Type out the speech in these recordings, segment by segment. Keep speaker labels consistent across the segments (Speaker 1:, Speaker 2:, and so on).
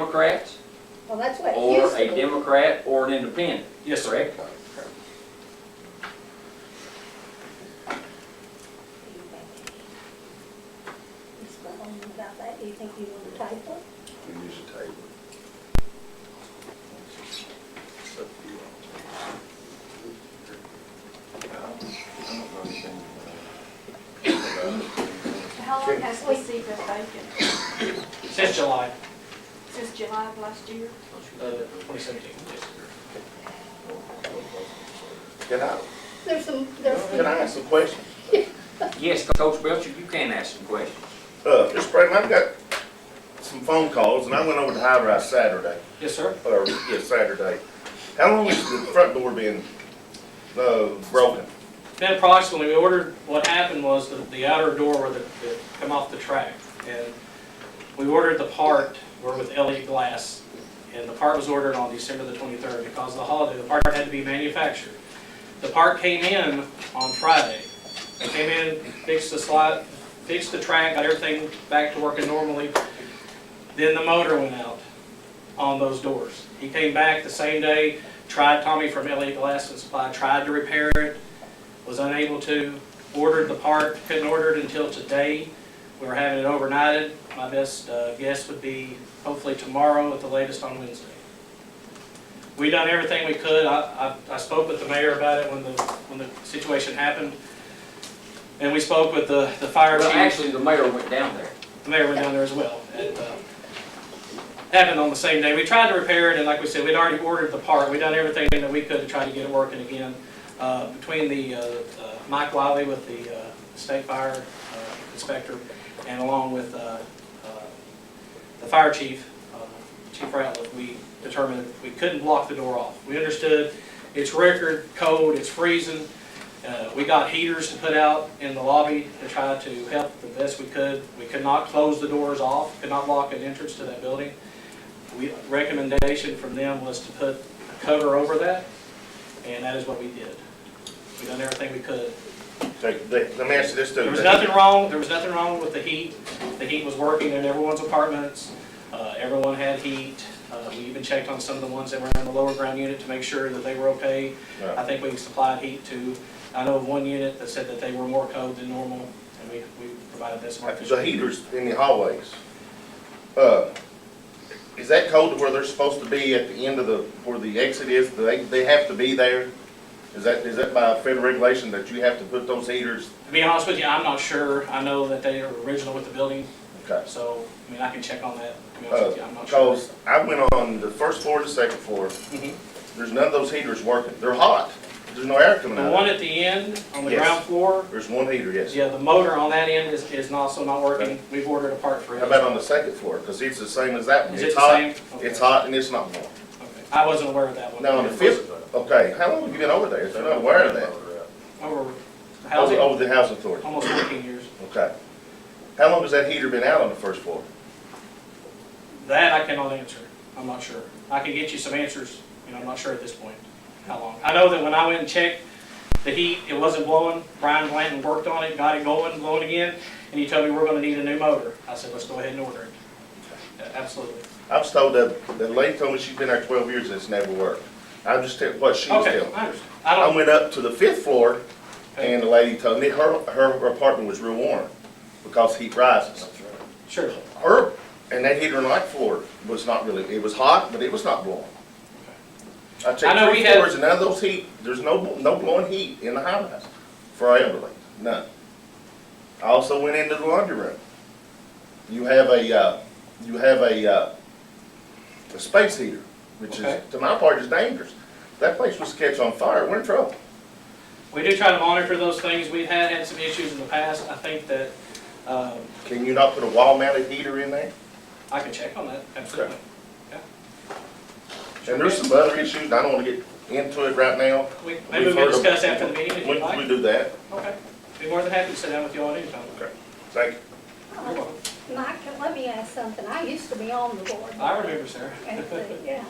Speaker 1: Democrats
Speaker 2: Well, that's what it
Speaker 1: or
Speaker 2: used
Speaker 1: a
Speaker 2: to be.
Speaker 1: Democrat or an independent,
Speaker 3: Yes, sir.
Speaker 1: correct?
Speaker 2: Ms. Mahoney, about that, do you think you want to type it?
Speaker 4: We use a table.
Speaker 5: How long has the seat been vacant?
Speaker 3: Since July
Speaker 5: Since July of last year?
Speaker 3: uh, 2017.
Speaker 4: Get out.
Speaker 2: There's some, there's
Speaker 4: Can I
Speaker 2: some,
Speaker 4: ask a question?
Speaker 1: Yes, Coach Belcher, you can ask some questions.
Speaker 4: Uh, Mr. Franklin, I've got some phone calls, and I went over to High Rise Saturday,
Speaker 3: Yes, sir.
Speaker 4: or, yeah, Saturday. How long has the front door been, uh, broken?
Speaker 3: Then approximately, we ordered, what happened was the, the outer door where the, the, come off the track. And we ordered the part, we're with Elliott Glass, and the part was ordered on December the 23rd because of the holiday. The part had to be manufactured. The part came in on Friday. They came in, fixed the slide, fixed the track, got everything back to working normally. Then the motor went out on those doors. He came back the same day, tried, Tommy from Elliott Glass and Supply, tried to repair it, was unable to, ordered the part, couldn't order it until today. We were having it overnighted. My best uh, guess would be hopefully tomorrow at the latest on Wednesday. We done everything we could. I, I, I spoke with the mayor about it when the, when the situation happened. And we spoke with the, the fire
Speaker 1: Well,
Speaker 3: chief.
Speaker 1: actually, the mayor went down there.
Speaker 3: The mayor went down there as well. and, uh, Happened on the same day. We tried to repair it, and like we said, we'd already ordered the part. We'd done everything that we could to try to get it working again. Uh, Between the, uh, uh, Mike Wiley with the uh, state fire uh, inspector, and along with uh, uh, the fire chief, uh, Chief Ratliff, we determined we couldn't block the door off. We understood it's record cold, it's freezing. Uh, We got heaters to put out in the lobby to try to help the best we could. We could not close the doors off, could not lock an entrance to that building. We, recommendation from them was to put a cover over that, and that is what we did. We done everything we could.
Speaker 4: Take- they- Let me ask you this too.
Speaker 3: There was nothing wrong, there was nothing wrong with the heat. The heat was working in everyone's apartments. Uh, Everyone had heat. Uh, We even checked on some of the ones that were in the lower ground unit to make sure that they were okay. I
Speaker 4: No.
Speaker 3: think we supplied heat to, I know of one unit that said that they were more cold than normal, and we, we provided this. much.
Speaker 4: The heaters in the hallways, uh, is that cold to where they're supposed to be at the end of the, where the exit is? Do they, they have to be there? Is that, is that by federal regulation that you have to put those heaters?
Speaker 3: To be honest with you, I'm not sure. I know that they are original with the building,
Speaker 4: Okay. Uh,
Speaker 3: so, I mean, I can check on that. To be honest with you, I'm not sure.
Speaker 4: Because I went on the first floor to the second floor,
Speaker 3: Mhm.
Speaker 4: there's none of those heaters working. They're hot. There's no air coming
Speaker 3: The
Speaker 4: out. of
Speaker 3: one
Speaker 4: it.
Speaker 3: at the end, on the
Speaker 4: Yes.
Speaker 3: ground floor,
Speaker 4: There's one heater, yes.
Speaker 3: yeah, the motor on that end is, is also not working. We've ordered a part for it.
Speaker 4: How about on the second floor? Because it's the same as that one.
Speaker 3: Is it
Speaker 4: It's
Speaker 3: the
Speaker 4: hot,
Speaker 3: same? Okay.
Speaker 4: it's hot, and it's not warm.
Speaker 3: Okay. I wasn't aware of that one.
Speaker 4: Now, on the fifth, okay, how long have you been over there? If They're not aware of that.
Speaker 3: Over the
Speaker 4: Over,
Speaker 3: housing,
Speaker 4: over the housing authority,
Speaker 3: almost fourteen years.
Speaker 4: okay. How long has that heater been out on the first floor?
Speaker 3: That I cannot answer. I'm not sure. I can get you some answers, you know, I'm not sure at this point how long. I know that when I went and checked, the heat, it wasn't blowing. Brian Blanton worked on it, got it going, blowing again, and he told me we're gonna need a new motor. I said, let's go ahead and order it. Yeah, Absolutely.
Speaker 4: I was told that, the lady told me she's been there twelve years and it's never worked. I'm just telling what she was
Speaker 3: Okay,
Speaker 4: telling. me.
Speaker 3: I understand. I
Speaker 4: I
Speaker 3: don't,
Speaker 4: went up to the fifth floor and the lady told me her, her apartment was real warm because heat rises.
Speaker 3: sure.
Speaker 4: Her, and that heater on the ninth floor was not really, it was hot, but it was not blowing. I
Speaker 3: I
Speaker 4: checked
Speaker 3: know we
Speaker 4: three
Speaker 3: had-
Speaker 4: floors and none of those heat, there's no, no blowing heat in the high rise for our elderly, none. I also went into the laundry room. You have a, uh, you have a, uh, a space heater, which
Speaker 3: Okay.
Speaker 4: is, to my part, is dangerous. That place was catch on fire, we're in trouble.
Speaker 3: We do try to monitor those things. We had had some issues in the past. I think that, um,
Speaker 4: Can you not put a wall mounted heater in there?
Speaker 3: I can check on that, absolutely.
Speaker 4: And there's some other issues, I don't wanna get into it right now.
Speaker 3: We- Maybe we
Speaker 4: We've heard
Speaker 3: can
Speaker 4: of-
Speaker 3: discuss after the meeting if
Speaker 4: We-
Speaker 3: you'd like.
Speaker 4: We do that,
Speaker 3: Okay, be more than happy to sit down with you all anytime.
Speaker 4: Okay. thank you.
Speaker 2: uh, Mike, let me ask something. I used to be on the board.
Speaker 3: I remember, Sarah.
Speaker 2: And, uh, yeah.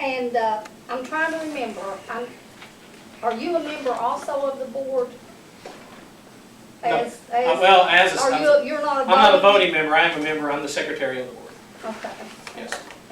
Speaker 2: And, uh, I'm trying to remember, I'm, are you a member also of the board?
Speaker 3: No.
Speaker 2: As,
Speaker 3: Uh,
Speaker 2: as,
Speaker 3: Well, as, a-
Speaker 2: are you, you're not a
Speaker 3: I'm not a
Speaker 2: voting?
Speaker 3: voting member, I am a member, I'm the secretary of the board,
Speaker 2: Okay.
Speaker 3: yes.